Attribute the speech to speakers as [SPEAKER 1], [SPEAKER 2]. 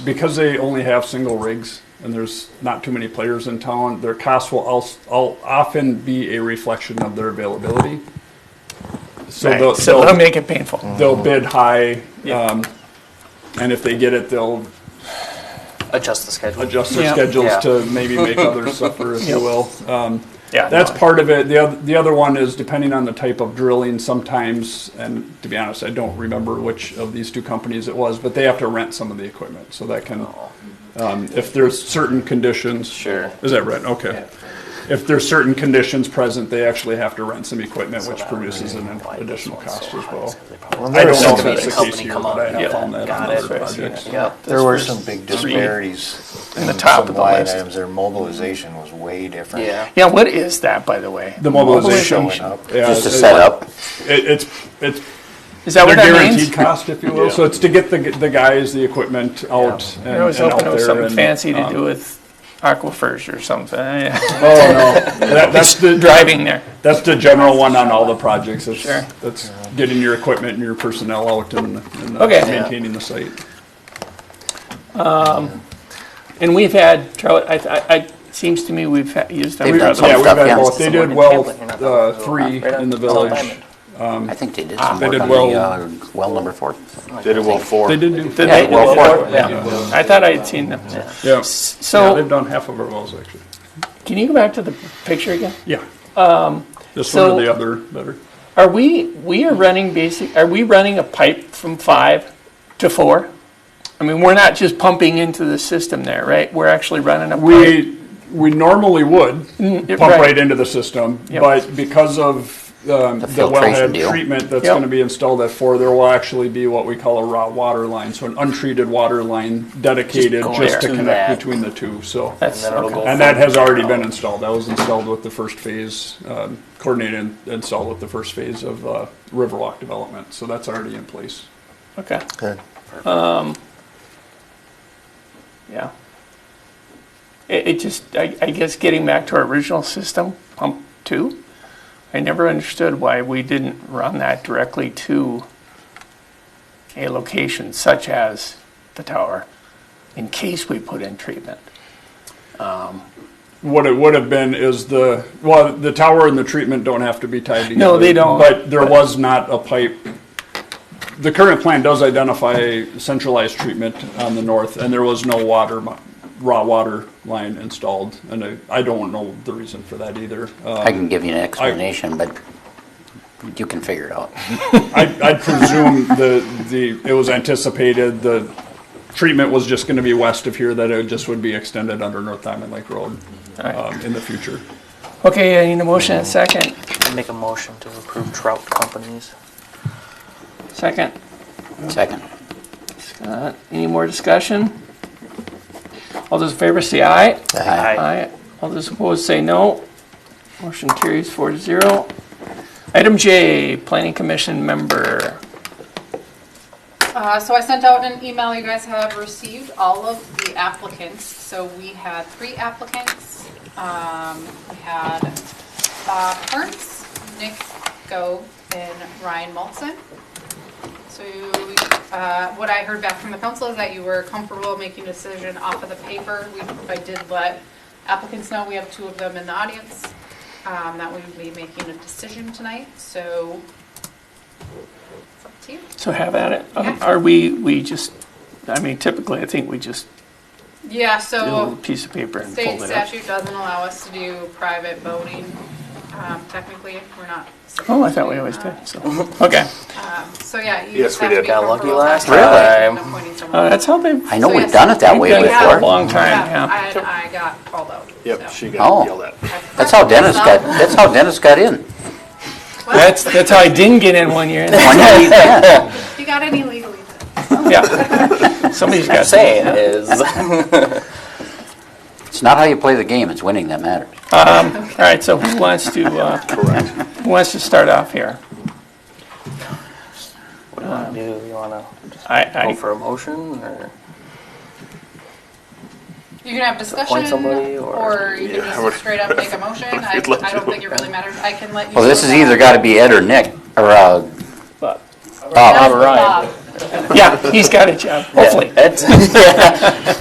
[SPEAKER 1] because they only have single rigs and there's not too many players in town, their costs will al- al- often be a reflection of their availability. So
[SPEAKER 2] Right,
[SPEAKER 1] they'll,
[SPEAKER 2] So
[SPEAKER 1] they'll- Mm.
[SPEAKER 2] they'll make it painful.
[SPEAKER 1] they'll bid high,
[SPEAKER 2] Yeah.
[SPEAKER 1] um, and if they get it, they'll
[SPEAKER 3] adjust the schedule.
[SPEAKER 1] adjust their
[SPEAKER 2] Yeah.
[SPEAKER 1] schedules
[SPEAKER 3] Yeah.
[SPEAKER 1] to maybe make others suffer, if you will. Um,
[SPEAKER 2] Yeah,
[SPEAKER 1] that's
[SPEAKER 2] no,
[SPEAKER 1] part of it. The other, the other one is depending on the type of drilling sometimes, and to be honest, I don't remember which of these two companies it was, but they have to rent some of the equipment, so that can, um, if there's certain conditions.
[SPEAKER 3] Sure.
[SPEAKER 1] Is that right? Okay. If there's certain conditions present, they actually have to rent some equipment, which produces an additional cost as well. I don't know if that's the case here, but I have found that on other projects.
[SPEAKER 3] Yep.
[SPEAKER 4] There were some big disparities. In
[SPEAKER 2] the top
[SPEAKER 4] some
[SPEAKER 2] of the
[SPEAKER 4] line
[SPEAKER 2] list.
[SPEAKER 4] items, their mobilization was way different.
[SPEAKER 3] Yeah.
[SPEAKER 2] Yeah, what is that, by the way?
[SPEAKER 1] The mobilization.
[SPEAKER 4] Showing up.
[SPEAKER 1] yeah,
[SPEAKER 5] Just to
[SPEAKER 1] it-
[SPEAKER 5] set up,
[SPEAKER 1] It, it's, it's
[SPEAKER 2] Is that
[SPEAKER 1] Their
[SPEAKER 2] what that means?
[SPEAKER 1] guaranteed cost, if you will. So it's to get the, the guys, the equipment out and
[SPEAKER 2] I was
[SPEAKER 1] and out
[SPEAKER 2] hoping it was
[SPEAKER 1] there
[SPEAKER 2] something
[SPEAKER 1] and,
[SPEAKER 2] fancy to
[SPEAKER 1] um,
[SPEAKER 2] do with aquifers or something. uh,
[SPEAKER 1] Oh, no. That- That's the,
[SPEAKER 2] Driving there.
[SPEAKER 1] that's the general one on all the projects. It's-
[SPEAKER 2] Sure.
[SPEAKER 1] That's getting your equipment and your personnel out and and, uh,
[SPEAKER 2] Okay.
[SPEAKER 1] maintaining the site.
[SPEAKER 2] And we've had, trou- I, I, I- it seems to me we've had- used them.
[SPEAKER 5] They've
[SPEAKER 2] for
[SPEAKER 5] done
[SPEAKER 2] other-
[SPEAKER 5] some
[SPEAKER 1] Yeah, we've
[SPEAKER 5] stuff,
[SPEAKER 1] had
[SPEAKER 5] yeah.
[SPEAKER 1] both. They did well, uh, three in the village.
[SPEAKER 5] I think they did some
[SPEAKER 1] Ah, They
[SPEAKER 5] work
[SPEAKER 1] did
[SPEAKER 5] on
[SPEAKER 1] well. Uh,
[SPEAKER 5] the, uh, well number four.
[SPEAKER 6] Did it well four.
[SPEAKER 1] They did do,
[SPEAKER 2] Did
[SPEAKER 5] Yeah,
[SPEAKER 2] they do
[SPEAKER 5] well,
[SPEAKER 2] that?
[SPEAKER 5] four,
[SPEAKER 2] Yeah. I thought I had seen them.
[SPEAKER 1] yeah. Yeah, they've
[SPEAKER 2] So,
[SPEAKER 1] done half of our wells, actually.
[SPEAKER 2] can you go back to the picture again?
[SPEAKER 1] Yeah. This one
[SPEAKER 2] so-
[SPEAKER 1] or the other, better.
[SPEAKER 2] Are we, we are running basic, are we running a pipe from five to four? I mean, we're not just pumping into the system there, right? We're actually running a pipe.
[SPEAKER 1] We, we normally would pump
[SPEAKER 2] it- Mm, right.
[SPEAKER 1] right into the system,
[SPEAKER 2] Yep.
[SPEAKER 1] but because of um, the
[SPEAKER 5] filtration
[SPEAKER 1] wellhead
[SPEAKER 5] deal.
[SPEAKER 1] treatment that's
[SPEAKER 2] Yep.
[SPEAKER 1] going to be installed at four, there will actually be what we call a raw water line, so an untreated water line dedicated
[SPEAKER 2] Just
[SPEAKER 1] just to
[SPEAKER 2] going
[SPEAKER 3] to
[SPEAKER 1] connect
[SPEAKER 3] that.
[SPEAKER 1] between the two, so.
[SPEAKER 2] That's,
[SPEAKER 3] And then it'll
[SPEAKER 2] okay.
[SPEAKER 3] go
[SPEAKER 1] And that has already been installed. That was installed with the first phase, um, coordinated and installed with the first phase of uh, Riverwalk development, so that's already in place.
[SPEAKER 2] okay,
[SPEAKER 4] Good.
[SPEAKER 2] yeah. It, it just, I, I guess getting back to our original system, pump two, I never understood why we didn't run that directly to a location such as the tower in case we put in treatment.
[SPEAKER 1] What it would have been is the, well, the tower and the treatment don't have to be tied together.
[SPEAKER 2] No, they don't.
[SPEAKER 1] But there was not a pipe. The current plan does identify centralized treatment on the north, and there was no water, mi- raw water line installed. And I, I don't know the reason for that either. Uh,
[SPEAKER 5] I can give you an explanation, but you can figure it out.
[SPEAKER 1] I, I presume the, the, it was anticipated, the treatment was just gonna be west of here, that it just would be extended under North Diamond Lake Road,
[SPEAKER 2] All right.
[SPEAKER 1] um, in the future.
[SPEAKER 2] Okay, I need a motion and a second.
[SPEAKER 3] Make a motion to approve trout companies.
[SPEAKER 2] Second.
[SPEAKER 5] Second.
[SPEAKER 2] Uh, Any more discussion? All those in favor say aye.
[SPEAKER 3] Aye.
[SPEAKER 2] All those opposed say no. Motion carries four to zero. Item J, Planning Commission member.
[SPEAKER 7] Uh, So I sent out an email, you guys have received all of the applicants. So we had three applicants. Um, We had Bob Hertz, Nick Go, and Ryan Molson. So uh, what I heard back from the council is that you were comfortable making a decision off of the paper. We- I did let applicants know, we have two of them in the audience, um, that we would be making a decision tonight. So it's up to you.
[SPEAKER 2] So have at it. Um,
[SPEAKER 7] Yeah.
[SPEAKER 2] Are we, we just, I mean typically, I think we just
[SPEAKER 7] Yeah,
[SPEAKER 2] do a little
[SPEAKER 7] so
[SPEAKER 2] piece of paper and
[SPEAKER 7] state
[SPEAKER 2] fold it up.
[SPEAKER 7] statute doesn't allow us to do private voting. Um, Technically, we're not.
[SPEAKER 2] Oh, I thought we always did, so, okay.
[SPEAKER 7] uh, So, yeah, you
[SPEAKER 6] Yes,
[SPEAKER 7] just
[SPEAKER 6] we
[SPEAKER 7] have to
[SPEAKER 6] did.
[SPEAKER 7] be
[SPEAKER 3] Got lucky
[SPEAKER 7] comfortable
[SPEAKER 3] last
[SPEAKER 7] with that
[SPEAKER 3] Really?
[SPEAKER 7] and appointing someone.
[SPEAKER 2] Uh, That's how they've,
[SPEAKER 5] I know
[SPEAKER 7] So
[SPEAKER 5] we've
[SPEAKER 7] yes,
[SPEAKER 5] done it that way
[SPEAKER 2] we've done it for a
[SPEAKER 5] before.
[SPEAKER 2] long time,
[SPEAKER 7] I,
[SPEAKER 2] yeah.
[SPEAKER 7] I got called out. so.
[SPEAKER 6] Yep, she got
[SPEAKER 5] Oh.
[SPEAKER 6] yelled at.
[SPEAKER 5] That's how Dennis got, that's how Dennis got in.
[SPEAKER 2] That's, that's how I didn't get in one year.
[SPEAKER 5] One day, yeah,
[SPEAKER 7] If you got any legally,
[SPEAKER 2] Yeah. Somebody's got to.
[SPEAKER 3] Saying is.
[SPEAKER 5] It's not how you play the game, it's winning that matters.
[SPEAKER 2] All right, so who wants to, uh, who wants to start off here?
[SPEAKER 3] What do you wanna do? You wanna just
[SPEAKER 2] I,
[SPEAKER 3] go
[SPEAKER 2] I,
[SPEAKER 3] for a motion or?
[SPEAKER 7] you can have discussion,
[SPEAKER 3] somebody or-
[SPEAKER 7] or you
[SPEAKER 6] Yeah,
[SPEAKER 7] can
[SPEAKER 6] I would-
[SPEAKER 7] just straight up make a motion. I, I
[SPEAKER 6] We'd let
[SPEAKER 7] don't
[SPEAKER 6] you.
[SPEAKER 7] think it really matters. I can let you.
[SPEAKER 5] Well, Oh, this
[SPEAKER 7] vote
[SPEAKER 5] has
[SPEAKER 7] on
[SPEAKER 5] either
[SPEAKER 7] it.
[SPEAKER 5] gotta be Ed or Nick, or, uh,
[SPEAKER 2] but,
[SPEAKER 7] That's
[SPEAKER 5] Bob.
[SPEAKER 7] Bob.
[SPEAKER 2] Yeah, he's got a job, hopefully.
[SPEAKER 3] Ed?